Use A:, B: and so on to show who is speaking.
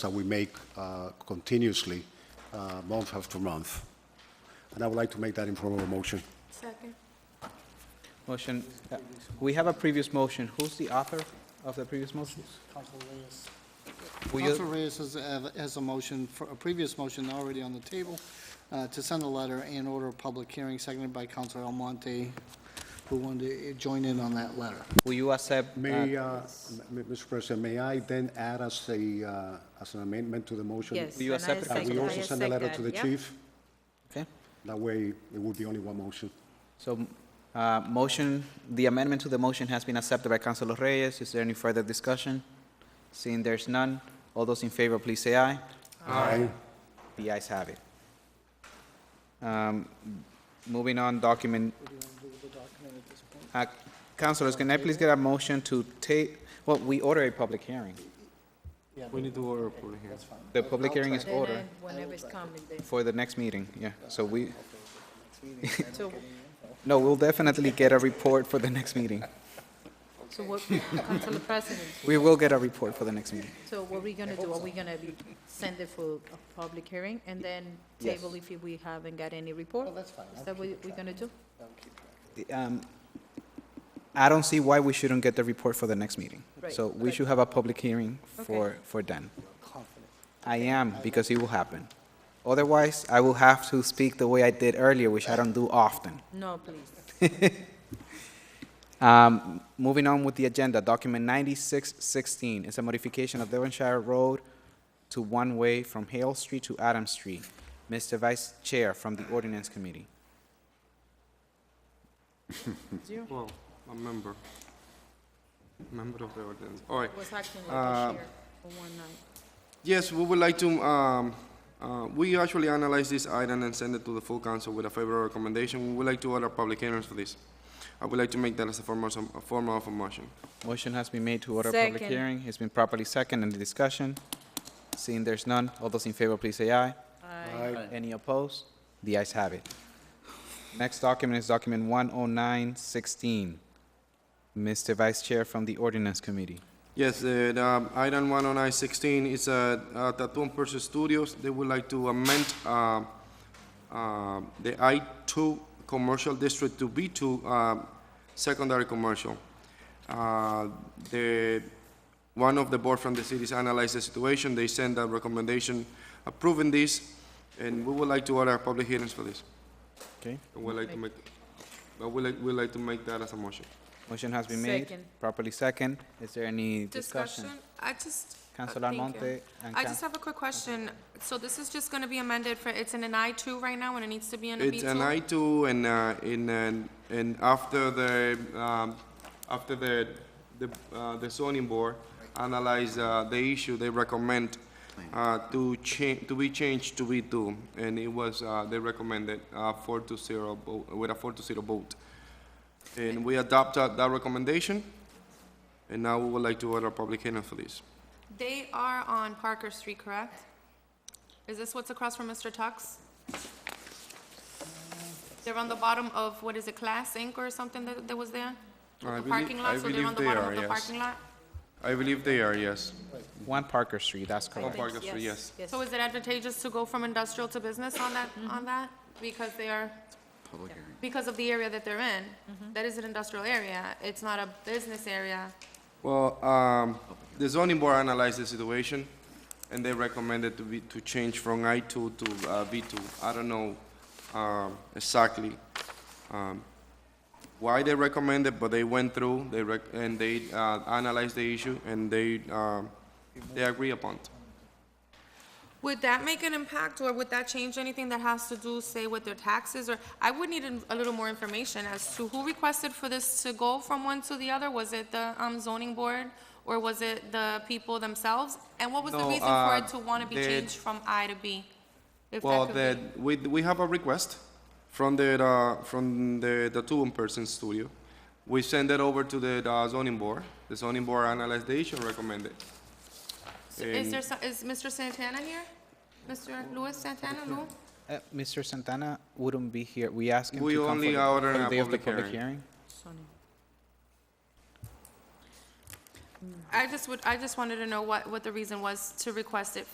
A: that we make uh, continuously, uh, month after month. And I would like to make that in form of a motion.
B: Second.
C: Motion, uh, we have a previous motion. Who's the author of the previous motion?
D: Council Reyes.
C: Will
D: Council
C: you,
D: Reyes has, has a motion, for a previous motion already on the table, uh, to send a letter and order a public hearing, seconded by Council Almonte, who wanted to join in on that letter.
C: will you accept? uh,
A: May, uh, m- m- Mr. President, may I then add as a, uh, as an amendment to the motion?
B: Yes.
C: you
B: and I
C: accept it?
A: That
B: second-
A: we
B: I
A: also send a
B: accept
A: letter
B: that,
A: to the
B: yeah.
A: chief?
C: Okay,
A: That way, it would be only one motion.
C: so, uh, motion, the amendment to the motion has been accepted by Councilor Reyes. Is there any further discussion? Seeing there's none, all those in favor, please say aye.
A: Aye.
C: The ayes have it. Um, Moving on, document. Uh, Councilors, can I please get a motion to take, well, we order a public hearing.
E: We need to order a public hearing.
C: The public hearing is
B: Then
C: ordered
B: I- Whenever it's coming, then.
C: for the next meeting, yeah. So we,
B: So,
C: no, we'll definitely get a report for the next meeting.
B: so what, Council President,
C: We will get a report for the next meeting.
B: so what are we gonna do? Are we gonna be- send it for a public hearing and then
C: Yes.
B: table if we haven't got any report?
A: Oh,
D: Well, that's fine.
B: Is that what we're gonna do?
C: Um, I don't see why we shouldn't get the report for the next meeting.
B: Right,
C: So we
B: but-
C: should have a public hearing
B: Okay.
C: for, for then. I am, because it will happen. Otherwise, I will have to speak the way I did earlier, which I don't do often.
B: No, please.
C: Um, Moving on with the agenda, document 9616 is a modification of Devonshire Road to one-way from Hale Street to Adams Street. Mr. Vice Chair from the Ordinance Committee.
E: Well, a member. Member of the ordinance. All right.
B: Was acting like
E: Uh,
B: a chair for one night.
E: Yes, we would like to, um, uh, we actually analyze this item and send it to the full council with a favorable recommendation. We would like to order public hearings for this. I would like to make that as a form of, a form of a motion.
C: Motion has been made to order a public
B: Second.
C: hearing. It's been properly second. Any discussion? Seeing there's none, all those in favor, please say aye. Any opposed? The ayes have it. Next document is document 10916. Mr. Vice Chair from the Ordinance Committee.
E: Yes, uh, the item one oh nine sixteen is uh, uh, Tattoo and Piercing Studios. They would like to amend uh, uh, the I two commercial district to B two secondary commercial. Uh, The, one of the board from the cities analyzed the situation. They send a recommendation approving this, and we would like to order public hearings for this.
C: Okay.
E: I would like to make, I would like, we'd like to make that as a motion.
C: Motion has been made.
B: Second.
C: Properly second. Is there any discussion?
F: I just. uh,
C: Councilor
F: thank you.
C: Almonte and
F: I
C: Coun-
F: just have a quick question. So this is just gonna be amended for, it's in an I two right now and it needs to be in a B
E: It's
F: two?
E: an I two and, uh, in, and, and after the, um, after the, the, uh, the zoning board analyze, uh, the issue, they recommend, uh, to change, to be changed to B two. And it was, uh, they recommended, uh, four to zero vote, with a four to zero vote. And we adopted that recommendation, and now we would like to order a public hearing for this.
F: They are on Parker Street, correct? Is this what's across from Mr. Tuck's? They're on the bottom of, what is it, Class Inc. or something that, that was there?
E: I
F: The
E: belie-
F: parking
E: I
F: lot, so they're
E: believe
F: on the
E: they
F: bottom
E: are,
F: of the
E: yes.
F: parking lot?
E: I believe they are, yes.
C: One Parker Street, that's
E: On
C: correct.
E: Parker Street, yes.
B: Yes.
F: So is it advantageous to go from industrial to business on that, on that? Because they are, because of the area that they're in, that is an industrial area, it's not a business area.
E: Well, um, the zoning board analyzed the situation, and they recommended to be, to change from I two to, uh, B two. I don't know, um, exactly, um, why they recommended, but they went through, they rec, and they, uh, analyzed the issue, and they, um, they agree upon. it.
F: Would that make an impact, or would that change anything that has to do, say, with their taxes, or, I would need a- a little more information as to who requested for this to go from one to the other? Was it the um, zoning board, or was it the people themselves? And what was the
E: No,
F: reason for
E: uh,
F: it to want to be
E: the-
F: changed from I to B? If that
E: Well,
F: could
E: the,
F: be-
E: we, we have a request from the, uh, from the tattoo and person studio. We send it over to the uh, zoning board. The zoning board analyzed the issue and recommended.
F: So Is
E: And-
F: there, so- is Mr. Santana here? Mr. Luis Santana, Lou?
C: Uh, Mr. Santana wouldn't be here. We asked him to come
E: We
C: for
E: only
C: the-
E: order
C: for the
E: a
C: day of the
E: public
C: public
E: hearing.
C: hearing.
B: Sonny.
F: I just would, I just wanted to know what, what the reason was to request it